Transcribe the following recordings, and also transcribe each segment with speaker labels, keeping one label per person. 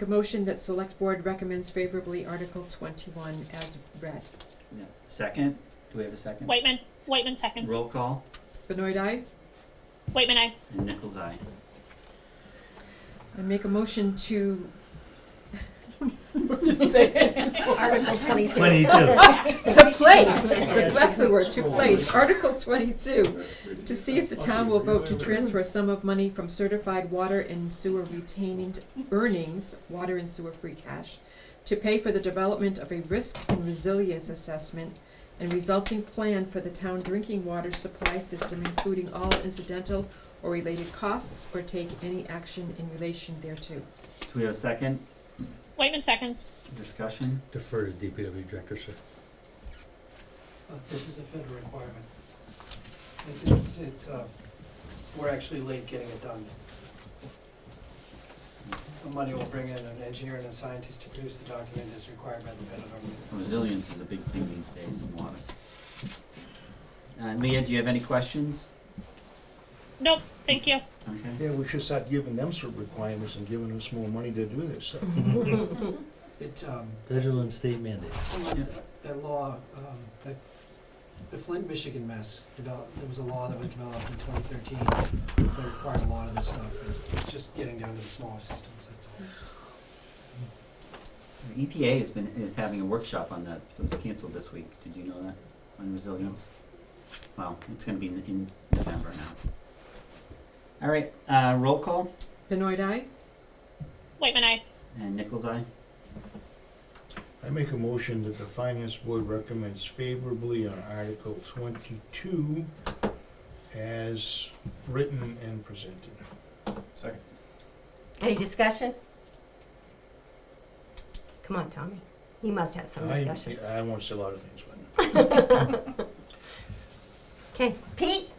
Speaker 1: A motion that select board recommends favorably Article twenty-one as read.
Speaker 2: No. Second? Do we have a second?
Speaker 3: Whitman, Whitman seconds.
Speaker 2: Roll call
Speaker 1: Benoit, aye?
Speaker 3: Whitman, I.
Speaker 2: and Nichols eye.
Speaker 1: I make a motion to. To say.
Speaker 4: Article twenty-two.
Speaker 2: Twenty-two.
Speaker 1: To place, that's the word, to place, Article twenty-two, to see if the town will vote to transfer a sum of money from certified water and sewer retained earnings, water and sewer free cash, to pay for the development of a risk and resilience assessment and resulting plan for the town drinking water supply system, including all incidental or related costs, or take any action in relation thereto.
Speaker 2: Do we have a second?
Speaker 3: Whitman seconds.
Speaker 2: Discussion?
Speaker 5: Defer to DPW director, sir.
Speaker 6: Uh, This is a federal requirement. It- It's, it's, uh, we're actually late getting it done. The money will bring in an engineer and a scientist to produce the document as required by the federal government.
Speaker 2: Resilience is a big thing these days in water. Uh, Leah, do you have any questions?
Speaker 3: Nope, thank you.
Speaker 2: Okay.
Speaker 7: Yeah, we should start giving them some requirements and giving us more money to do this stuff.
Speaker 6: It, um,
Speaker 5: Federal and state mandates.
Speaker 2: Yeah.
Speaker 6: that law, um, that, the Flint, Michigan mess developed, there was a law that was developed in twenty thirteen that required a lot of this stuff. and It's just getting down to the smaller systems, that's all.
Speaker 2: The EPA has been, is having E a workshop on that, it was canceled this week, did you know that, on resilience? Well, it's gonna be in, in November now. All right, uh, roll call,
Speaker 1: Benoit, aye?
Speaker 3: Whitman, I.
Speaker 2: and Nichols eye,
Speaker 7: I make a motion that the finance board recommends favorably on Article twenty-two as written and presented.
Speaker 8: Second.
Speaker 4: Any discussion? Come on, Tommy. You must have some
Speaker 7: I-
Speaker 4: discussion.
Speaker 7: I won't say a lot of things, but.
Speaker 4: Okay, Pete?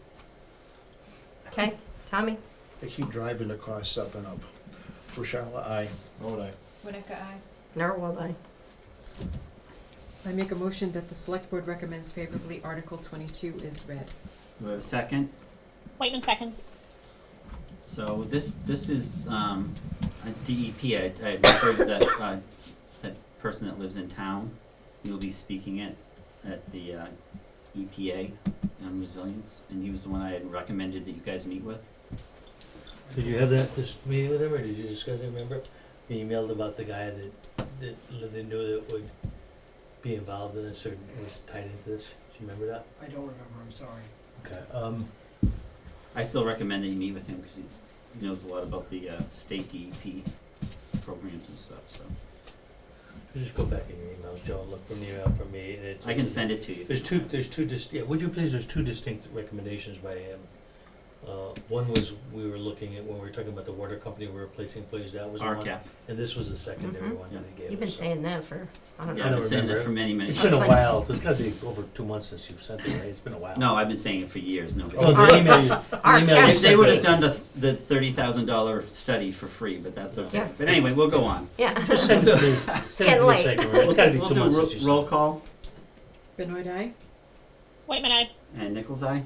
Speaker 4: Okay, Tommy?
Speaker 7: They keep driving the costs up and up. Rochella, aye.
Speaker 8: Vote aye.
Speaker 4: Narwhal, aye.
Speaker 1: I make a motion that the select board recommends favorably Article twenty-two is read.
Speaker 2: do we have a second?
Speaker 3: Whitman seconds.
Speaker 2: So this, this is, um, a DEP, I, I referred to that, uh, that person that lives in town. He'll be speaking at, at the, uh, EPA on resilience, and he was the one I had recommended that you guys meet with.
Speaker 5: Did you have that, this meeting with him, or did you discuss it, remember? You emailed about the guy that, that lived in knew that would be involved in this or was tied into this, do you remember that?
Speaker 6: I don't remember, I'm sorry.
Speaker 5: Okay, um,
Speaker 2: I still recommend that you meet with him, cause he he knows a lot about the, uh, state DEP programs and stuff, so.
Speaker 5: just go back in your emails, Joe, and look for an email from me, and it's.
Speaker 2: I can send it to you.
Speaker 5: There's two, there's two dis- yeah, would you please, there's two distinct recommendations by him. Uh, one was, we were looking at, when we were talking about the water company, we were replacing employees, that was the one,
Speaker 2: RCAP,
Speaker 5: and this was the secondary
Speaker 4: Mhm.
Speaker 5: one that he gave us.
Speaker 4: You've been
Speaker 5: so.
Speaker 4: saying that for, I don't
Speaker 2: yeah, I've
Speaker 4: know.
Speaker 2: been saying that
Speaker 5: remember.
Speaker 2: for many, many
Speaker 5: It's
Speaker 2: years.
Speaker 5: been a while, it's gotta be over two months since you've sent it, right? It's been a while.
Speaker 2: No, I've been saying it for years, no.
Speaker 5: Oh, the email, you- the
Speaker 4: Our
Speaker 5: email you
Speaker 2: If they
Speaker 5: sent
Speaker 2: would have
Speaker 5: us.
Speaker 2: done the, the thirty thousand dollar study for free, but that's okay.
Speaker 4: Yeah.
Speaker 2: But anyway, we'll go on.
Speaker 4: Yeah.
Speaker 5: Just send it to me, send it
Speaker 4: getting
Speaker 5: to me
Speaker 4: late.
Speaker 5: second, right? It's gotta be
Speaker 2: We'll
Speaker 5: two
Speaker 2: do
Speaker 5: months
Speaker 2: ro-
Speaker 5: since you
Speaker 2: Roll
Speaker 5: sent it.
Speaker 2: call,
Speaker 1: Benoit, aye?
Speaker 3: Whitman, I.
Speaker 2: and Nichols eye,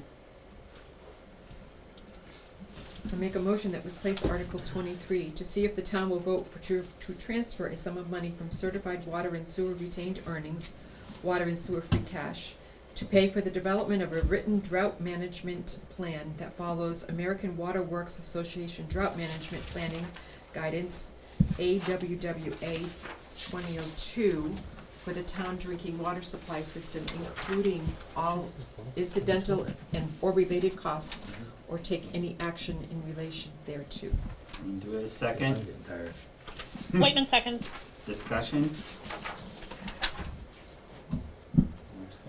Speaker 1: I make a motion that we place Article twenty-three, to see if the town will vote for to, to transfer a sum of money from certified water and sewer retained earnings, water and sewer free cash, to pay for the development of a written drought management plan that follows American Water Works Association Drought Management Planning Guidance, AWWA twenty oh two, for the town drinking water supply system, including all incidental and or related costs or take any action in relation thereto.
Speaker 2: and do a second,
Speaker 5: Getting tired.
Speaker 3: Whitman seconds.
Speaker 2: discussion.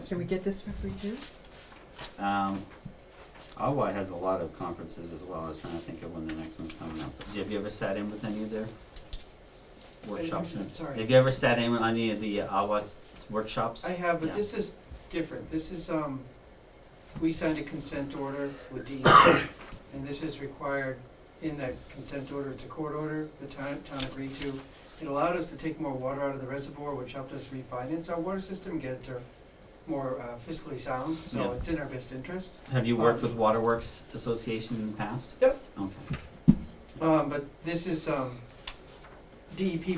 Speaker 1: Can we get this referee too?
Speaker 2: Um, Awa has a lot of conferences as well, I was trying to think of when the next one's coming up. Have you ever sat in with any of their workshops?
Speaker 6: I'm sorry.
Speaker 2: Have you ever sat in on any of the Awa workshops?
Speaker 6: I have,
Speaker 2: Yeah.
Speaker 6: but this is different. This is, um, we signed a consent order with DEP, and this is required in that consent order. It's a court order, the town, town agreed to. It allowed us to take more water out of the reservoir, which helped us refinance our water system, get it to more uh, fiscally sound,
Speaker 2: Yeah.
Speaker 6: so it's in our best interest.
Speaker 2: Have you worked with Waterworks Association in the past?
Speaker 6: Yep.
Speaker 2: Okay.
Speaker 6: Um, but this is, um, DEP